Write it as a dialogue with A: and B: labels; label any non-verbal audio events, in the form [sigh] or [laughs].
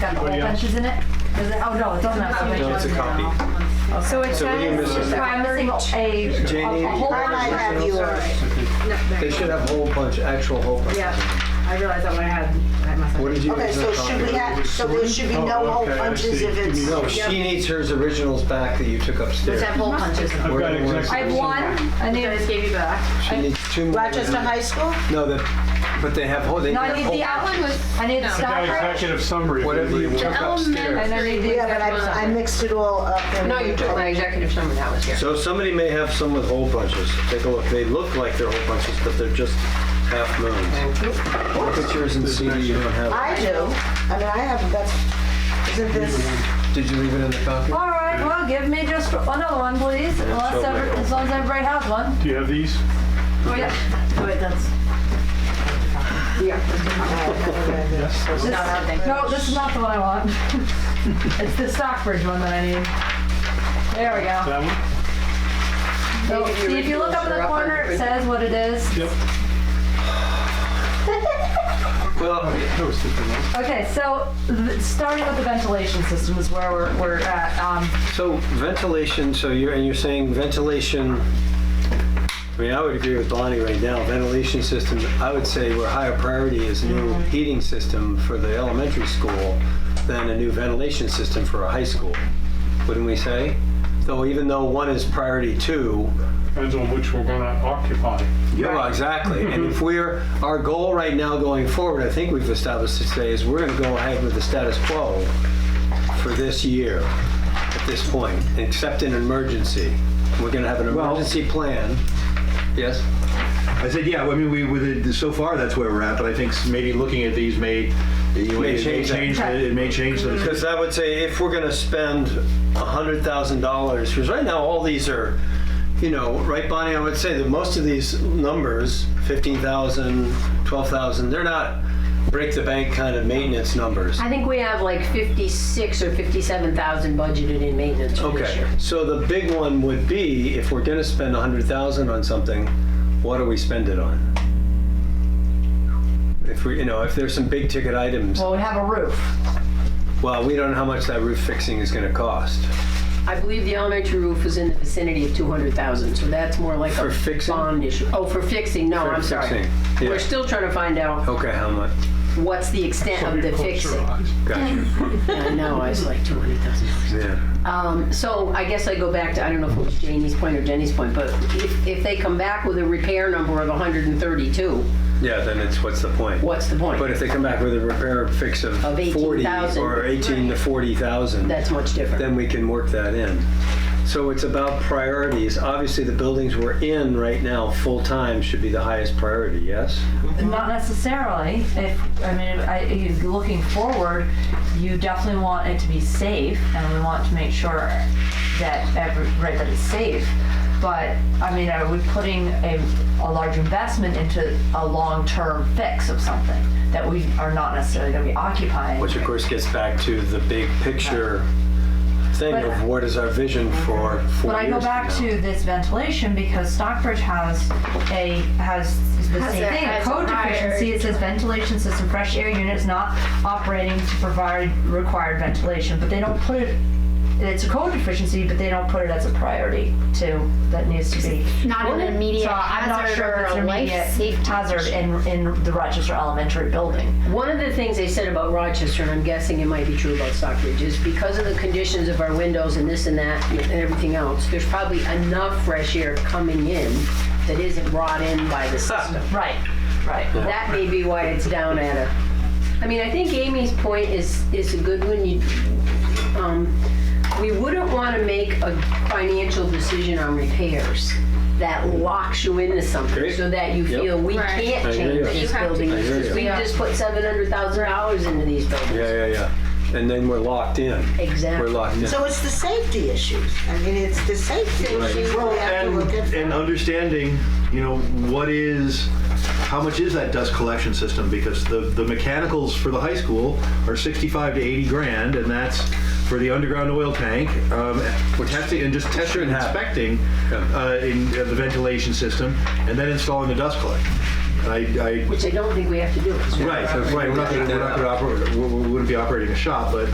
A: got the whole bunch, isn't it? Is it? Oh, no, it's on that.
B: No,
A: one.
B: it's a copy.
A: So it
B: So what are you missing?
A: says, I'm missing a,
B: Janie,
A: a a whole
B: I
C: I might
A: bunch.
C: have yours.
B: They should have whole bunch, actual whole bunch.
D: Yeah, I realized that when I had, I must have.
B: What did you?
C: Okay,
B: use
C: so
B: as a
C: should
B: copy?
C: we have, so there should
E: Oh,
C: be
B: Oh.
C: no whole punches if it's,
B: No, she needs hers originals back that you took upstairs.
D: That hole punches.
E: I've
B: Where
E: got
B: do you want it?
A: I
E: exactly.
A: have one, I
D: I
A: need,
D: just gave you back.
B: She needs two more.
C: Rochester High School?
B: No, that, but they have whole, they
A: no,
B: have
A: I need
B: whole-
A: the outline with, I need
E: Got
A: Stockbridge.
E: executive summary.
B: Whatever you
E: want.
B: took upstairs.
A: And I need the
C: Yeah, but
A: executive
C: I, I
A: summary.
C: mixed it all up. and-
D: No, you took my executive summary, that was here.
B: So somebody may have some with hole punches. Take a look. They look like they're hole punches, but they're just half moons. Look at yours and see that you don't have.
C: I do. I mean, I have, that's, isn't this,
B: it. Did you leave it in the copy?
A: All right, well, give me just another one, please, unless,
B: so
A: every-
B: weird.
A: as long as everybody has one.
E: Do you have these?
A: Oh, yeah. Wait, that's, no, this is not the one I want. [laughs] It's the Stockbridge one that I need. There we go.
E: That
A: So,
E: one?
D: Maybe the
A: see, if you look up in
D: originals are
A: the
D: up on
A: corner, it
D: the-
A: says what it is.
E: Yep.
B: Well,
E: That was different.
A: Okay, so th- starting with the ventilation system is where we're, we're at. Um,
B: so ventilation, so you're, and you're saying ventilation, I mean, I would agree with Bonnie right now. Ventilation system, I would say where higher priority is new heating system for the elementary school than a new ventilation system for a high school, wouldn't we say? Though even though one is priority two,
E: Depends on which we're gonna occupy.
B: Yeah, exactly. And if we're, our goal right now going forward, I think we've established today, is we're gonna go ahead with the status quo for this year at this point, except in emergency. We're gonna have an
F: Well-
B: emergency plan. Yes?
F: I said, yeah, I mean, we, with it, so far, that's where we're at, but I think maybe looking at these may, you know,
B: May
F: it may
B: change that.
F: change, the- it may change the.
B: Because I would say if we're gonna spend hundred thousand dollars, because right now all these are, you know, right, Bonnie, I would say that most of these numbers, fifteen thousand, twelve thousand, they're not break the bank kind of maintenance numbers.
D: I think we have like 56 or 57,000 budgeted in maintenance for this
B: Okay,
D: year.
B: so the big one would be, if we're gonna spend a hundred thousand on something, what do we spend it on? If we, you know, if there's some big ticket items,
A: well, we have a roof.
B: well, we don't know how much that roof fixing is gonna cost.
D: I believe the elementary roof was in the vicinity of 200,000, so that's more like
B: For
D: a
B: fixing?
D: bond issue. Oh, for fixing, no,
B: For
D: I'm sorry.
B: fixing, yeah.
D: We're still trying to find out
B: Okay, how much?
D: what's the extent of the fixing. [laughs]
B: Gotcha,
D: I know, I was like 200,000.
B: yeah.
D: Um, so I guess I go back to, I don't know if it was Jamie's point or Jenny's point, but if, if they come back with a repair number of 132,
B: Yeah, then it's, what's the point?
D: what's the point?
B: But if they come back with a repair fix of
D: Of
B: forty
D: 18,000.
B: or eighteen to forty thousand,
D: That's much different.
B: then we can work that in. So it's about priorities. Obviously, the buildings we're in right now, full-time, should be the highest priority, yes?
A: Not necessarily. If I mean, if I, if you're looking forward, you definitely want it to be safe, and we want to make sure that every right that it's safe. But I mean, are we putting a, a large investment into a long-term fix of something that we are not necessarily going to be occupying?
B: Which of course gets back to the big picture thing
A: But-
B: of what is our vision for four
A: But I go
B: years
A: back
B: from now.
A: to this ventilation because Stockbridge has a, has the
G: Has
A: same
G: a-
A: thing, a
G: has
A: code
G: a higher-
A: deficiency. It says ventilation system, fresh air units not operating to provide required ventilation, but they don't put it, it's a code deficiency, but they don't put it as a priority too, that needs to be.
G: not an immediate
A: So I'm not
G: hazard
A: sure
G: or
A: if it's
G: a
A: an
G: life
A: immediate
G: safety.
A: hazard in, in the Rochester Elementary building.
D: One of the things they said about Rochester, and I'm guessing it might be true about Stockbridge, is because of the conditions of our windows and this and that and everything else, there's probably enough fresh air coming in that isn't brought in by the system.
A: Right, right.
D: That may be why it's down at a. I mean, I think Amy's point is, is a good one. You, um, we wouldn't want to make a financial decision on repairs that locks you into something
B: Great.
D: so that you
B: Yep.
D: feel we
G: Right.
B: I
D: can't
B: hear you.
D: change these
G: You have to
D: buildings.
B: I hear
D: because
B: you.
D: We
G: Yeah.
D: just put seven hundred thousand dollars into these buildings.
B: Yeah, yeah, yeah. And then we're locked in. We're
D: Exactly.
B: locked in.
C: so it's the safety issues. I mean, it's the safety issues we have to
F: And,
C: look at.
F: and understanding, you know, what is, how much is that dust collection system? Because the, the mechanicals for the high school are sixty-five to eighty grand, and that's for the underground oil tank, um, for testing, and just testing and
B: happen.
F: inspecting,
B: Yeah.
F: uh, in uh, the ventilation system, and then installing the dust collector. I, I,
D: which I don't think we have to do. 'cause we're-
F: right, right, we're not gonna, we're not gonna operate, we we wouldn't be operating a shop, but